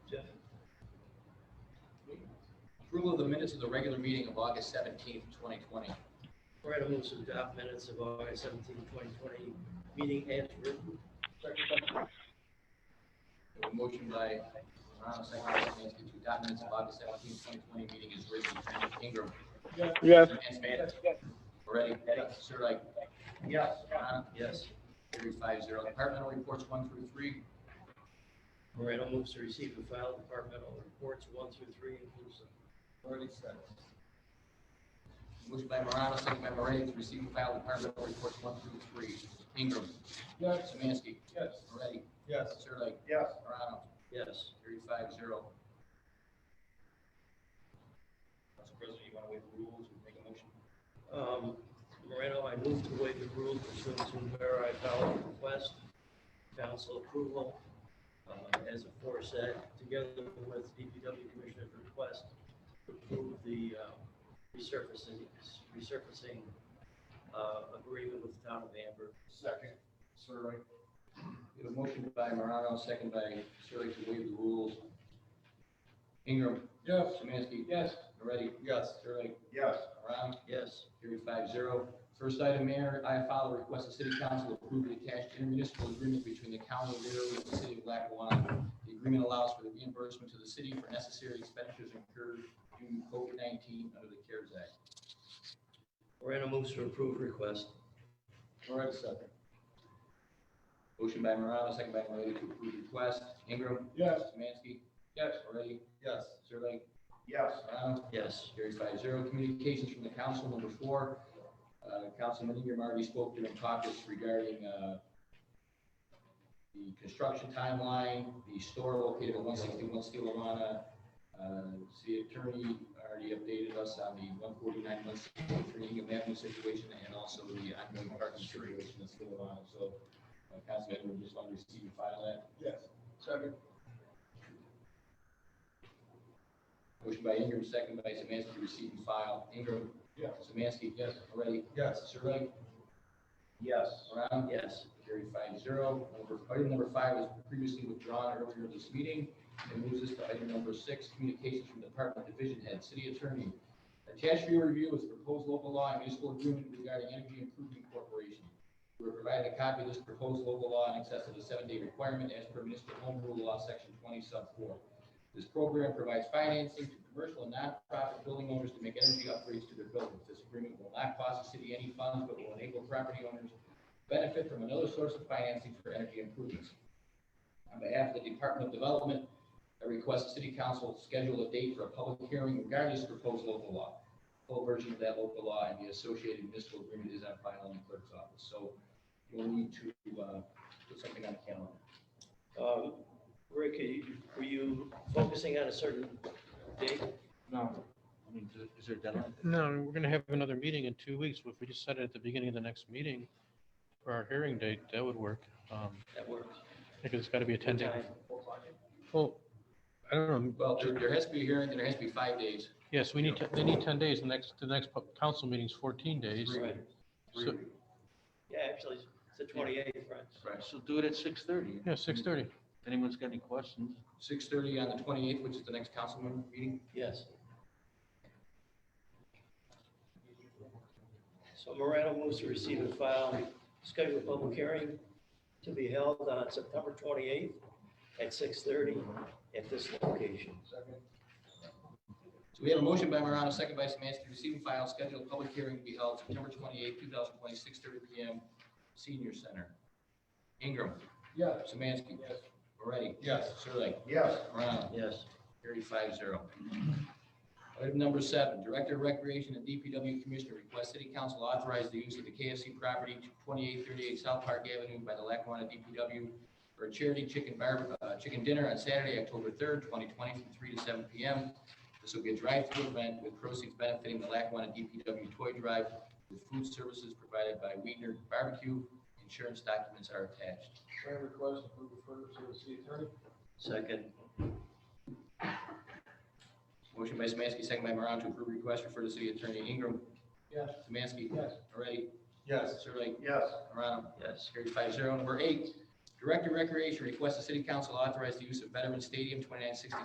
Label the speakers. Speaker 1: approval of the minutes of the regular meeting of August seventeenth, twenty twenty.
Speaker 2: Morano moves to adopt minutes of August 17, 2020, meeting as written.
Speaker 1: Motion by uh, Morano, second by Semansky, to adopt minutes of August seventeenth, twenty twenty, meeting is written. Ingram.
Speaker 3: yes,
Speaker 1: Semansky. Moretti. Sirdike.
Speaker 2: Yes.
Speaker 1: Morano.
Speaker 2: Yes.
Speaker 1: Carried five zero. Departmental reports one through three.
Speaker 2: Morano moves to receive and file departmental reports one through three inclusive.
Speaker 1: Motion by Morano, second by Moretti, to receive and file departmental reports one through three. Ingram.
Speaker 4: Yes.
Speaker 1: Semansky.
Speaker 4: Yes.
Speaker 1: Moretti.
Speaker 4: Yes.
Speaker 1: Sirdike.
Speaker 4: Yes.
Speaker 1: Morano.
Speaker 2: Yes.
Speaker 1: Carried five zero.
Speaker 4: Mr. President, you want to waive the rules and make a motion?
Speaker 2: Um, Morano, I move to waive the rule pursuant to where I filed a request, council approval, uh, as aforesaid, together with DPW Commissioner's request to approve the uh, resurfacing, resurfacing uh, agreement with the town of Amber.
Speaker 4: Second. Sir,
Speaker 1: We have a motion by Morano, second by Sirlik to waive the rules. Ingram.
Speaker 4: Yes.
Speaker 1: Semansky.
Speaker 4: Yes.
Speaker 1: Moretti.
Speaker 4: Yes.
Speaker 1: Sirlik.
Speaker 4: Yes.
Speaker 1: Morano.
Speaker 2: Yes.
Speaker 1: Carried five zero. First item, Mayor, I file a request the City Council approve the attached intermunicipal agreement between the County of Rio and the City of Lackawanna. The agreement allows for the reimbursement to the city for necessary expenditures incurred due to COVID-19 under the CARES Act.
Speaker 2: Morano moves to approve request.
Speaker 4: Moretti second.
Speaker 1: Motion by Morano, second by Moretti to approve request. Ingram.
Speaker 4: Yes.
Speaker 1: Semansky.
Speaker 4: Yes.
Speaker 1: Moretti.
Speaker 4: Yes.
Speaker 1: Sirlik.
Speaker 4: Yes.
Speaker 1: Morano.
Speaker 2: Yes.
Speaker 1: uh, Carried five zero. Communications from the council, number four. Uh, Councilman Ingram already spoke during caucus regarding, uh, the construction timeline, the store located at one sixty-one Steelamana. Uh, city attorney already updated us on the one forty-nine, one sixty-three Hingham Avenue situation and also the ongoing parking situation in Steelamana. So, uh, Councilman Ingram, just wanted to see you file that.
Speaker 4: Yes. Second.
Speaker 1: Motion by Ingram, second by Samansky, receive and file. Ingram.
Speaker 4: Yes.
Speaker 1: Samansky. Yes. Moretti.
Speaker 4: Yes.
Speaker 1: Sirdike.
Speaker 4: Yes.
Speaker 1: Morano.
Speaker 2: Yes.
Speaker 1: Carried five zero. Number, item number five was previously withdrawn earlier this meeting. And moves us to item number six, communications from Department Division Head, City Attorney. Attached for your review is proposed local law and municipal agreement regarding energy improvement corporation. We were provided a copy of this proposed local law in excess of the seven-day requirement as per municipal home rule law, section twenty sub four. This program provides financing to commercial and nonprofit building owners to make energy upgrades to their buildings. This agreement will not cost the city any funds, but will enable property owners benefit from another source of financing for energy improvements. On behalf of the Department of Development, I request the city council schedule a date for a public hearing regarding this proposed local law. Full version of that local law and the associated municipal agreement is on file in the clerk's office, so we'll need to, uh, put something on the calendar.
Speaker 2: Um, Rick, are you- were you focusing on a certain date?
Speaker 5: No. I mean, is- is there a deadline?
Speaker 6: No, we're gonna have another meeting in two weeks. If we just set it at the beginning of the next meeting for our hearing date, that would work. Um,
Speaker 2: That works.
Speaker 6: because it's gotta be a ten day.
Speaker 2: Time.
Speaker 6: Well, I don't know.
Speaker 1: Well, there, there has to be a hearing, and there has to be five days.
Speaker 6: Yes, we need, to- they need ten days. The next, the next pu- council meeting's fourteen days.
Speaker 2: Right.
Speaker 6: So,
Speaker 2: Yeah, actually, it's the twenty-eighth, right?
Speaker 1: Right.
Speaker 5: So do it at six thirty.
Speaker 6: yeah, six thirty.
Speaker 5: If anyone's got any questions,
Speaker 1: Six thirty on the twenty-eighth, which is the next council member meeting.
Speaker 2: Yes. So Morano moves to receive and file, schedule a public hearing to be held on September twenty-eighth at six thirty at this location.
Speaker 1: So we have a motion by Morano, second by Samansky, receive and file, scheduled public hearing to be held September twenty-eighth, two thousand twenty, six thirty P M, Senior Center. Ingram.
Speaker 4: Yes.
Speaker 1: Samansky.
Speaker 4: Yes.
Speaker 1: Moretti.
Speaker 4: Yes.
Speaker 1: Sirlik.
Speaker 4: Yes.
Speaker 1: Morano.
Speaker 2: Yes.
Speaker 1: Carried five zero. Item number seven, Director of Recreation and DPW Commissioner request City Council authorize the use of the KFC property twenty-eight thirty-eight South Park Avenue by the Lackawanna DPW for a charity chicken bar, uh, chicken dinner on Saturday, October third, twenty twenty, from three to seven P M. This will be a drive-through event with proceeds benefiting the Lackawanna DPW Toy Drive with food services provided by Wiener Barbecue. Insurance documents are attached.
Speaker 4: Chair request to move further to the city attorney.
Speaker 2: Second.
Speaker 1: Motion by Samansky, second by Morano to approve request, refer to City Attorney Ingram.
Speaker 4: Yes.
Speaker 1: Samansky.
Speaker 4: Yes.
Speaker 1: Moretti.
Speaker 4: Yes.
Speaker 1: Sirlik.
Speaker 4: Yes.
Speaker 1: Morano.
Speaker 2: Yes.
Speaker 1: Carried five zero. Number eight, Director of Recreation requests the City Council authorize the use of Veterans Stadium, twenty-nine sixty